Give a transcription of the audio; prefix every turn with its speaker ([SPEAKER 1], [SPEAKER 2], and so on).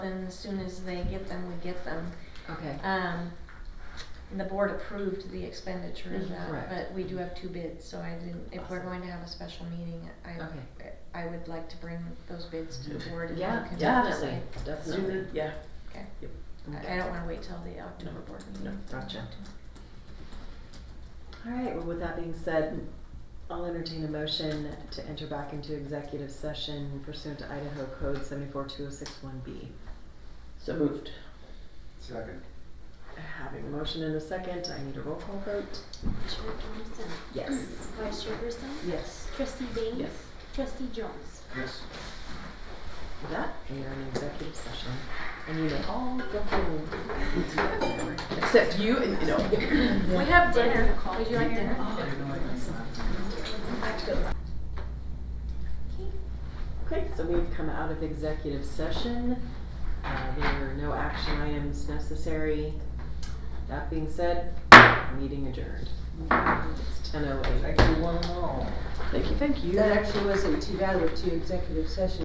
[SPEAKER 1] And as soon as they get them, we get them.
[SPEAKER 2] Okay,
[SPEAKER 1] Um, the board approved the expenditure of
[SPEAKER 2] Mhm.
[SPEAKER 1] that,
[SPEAKER 2] Correct.
[SPEAKER 1] but we do have two bids, so I didn't, if we're
[SPEAKER 2] Awesome.
[SPEAKER 1] going to have a special meeting,
[SPEAKER 2] Okay.
[SPEAKER 1] I, I would like to bring those bids to the
[SPEAKER 3] Mhm.
[SPEAKER 1] board and you
[SPEAKER 2] yeah,
[SPEAKER 1] can
[SPEAKER 2] definitely,
[SPEAKER 1] decide.
[SPEAKER 2] definitely.
[SPEAKER 3] Sooner, yeah.
[SPEAKER 1] Okay.
[SPEAKER 3] Yep.
[SPEAKER 1] I I don't wanna wait till the October
[SPEAKER 3] No,
[SPEAKER 1] board
[SPEAKER 3] no,
[SPEAKER 1] meeting.
[SPEAKER 3] gotcha.
[SPEAKER 4] All right, well, with that being said, I'll entertain a motion to enter back into executive session pursuant to Idaho Code seventy-four two oh six one B.
[SPEAKER 3] So moved.
[SPEAKER 5] Second.
[SPEAKER 4] Having a motion in a second, I need a roll call vote.
[SPEAKER 6] Chair Johnson.
[SPEAKER 4] Yes.
[SPEAKER 6] Vice Chair Grissom.
[SPEAKER 4] Yes.
[SPEAKER 6] Trustee Baines.
[SPEAKER 3] Yes.
[SPEAKER 6] Trustee Jones.
[SPEAKER 5] Yes.
[SPEAKER 4] With that, we are in executive session, and you may all go home.
[SPEAKER 3] Except you and, you know.
[SPEAKER 1] We have dinner, would you like dinner?
[SPEAKER 4] Okay, so we've come out of executive session. Uh, there are no action items necessary. That being said, meeting adjourned. It's ten oh eight.
[SPEAKER 5] Thank you, one and all.
[SPEAKER 3] Thank you, thank you.
[SPEAKER 2] That actually wasn't too bad with two executive sessions.